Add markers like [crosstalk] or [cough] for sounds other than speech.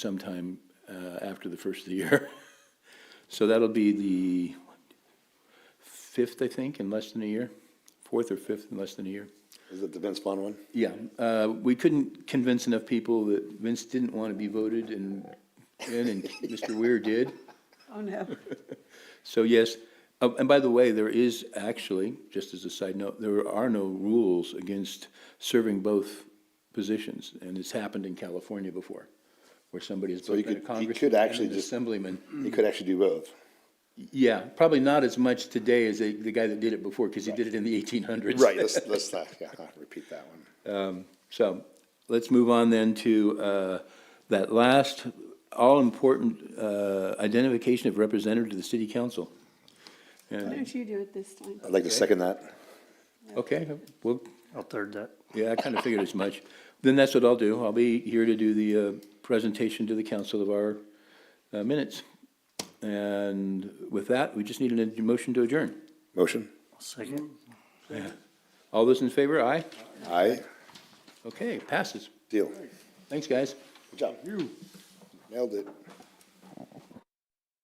sometime uh, after the first of the year. [laughs] So that'll be the fifth, I think, in less than a year, fourth or fifth in less than a year. Is it the Vince Vaughn one? Yeah, uh, we couldn't convince enough people that Vince didn't want to be voted and, in, and [laughs] Mr. Weir did. Oh, no. So yes, oh, and by the way, there is actually, just as a side note, there are no rules against serving both positions, and it's happened in California before, where somebody has So you both been a could- you congressman could actually and an just- assemblyman. You could actually do both. Yeah, probably not as much today as the, the guy that did it before, because he did it in the eighteen hundreds. Right, let's, let's, uh, yeah, I'll repeat that one. So let's move on then to uh, that last all-important uh, identification of representative to the city council. Why And, don't you do it this time? I'd like to second that. okay, well, I'll third that. yeah, I kind of figured as much. Then that's what I'll do. I'll be here to do the uh, presentation to the council of our uh, minutes. And with that, we just need a motion to adjourn. Motion? Second. All those in favor, aye? Aye. Okay, passes. Deal. Thanks, guys. Good job. You. Nailed it.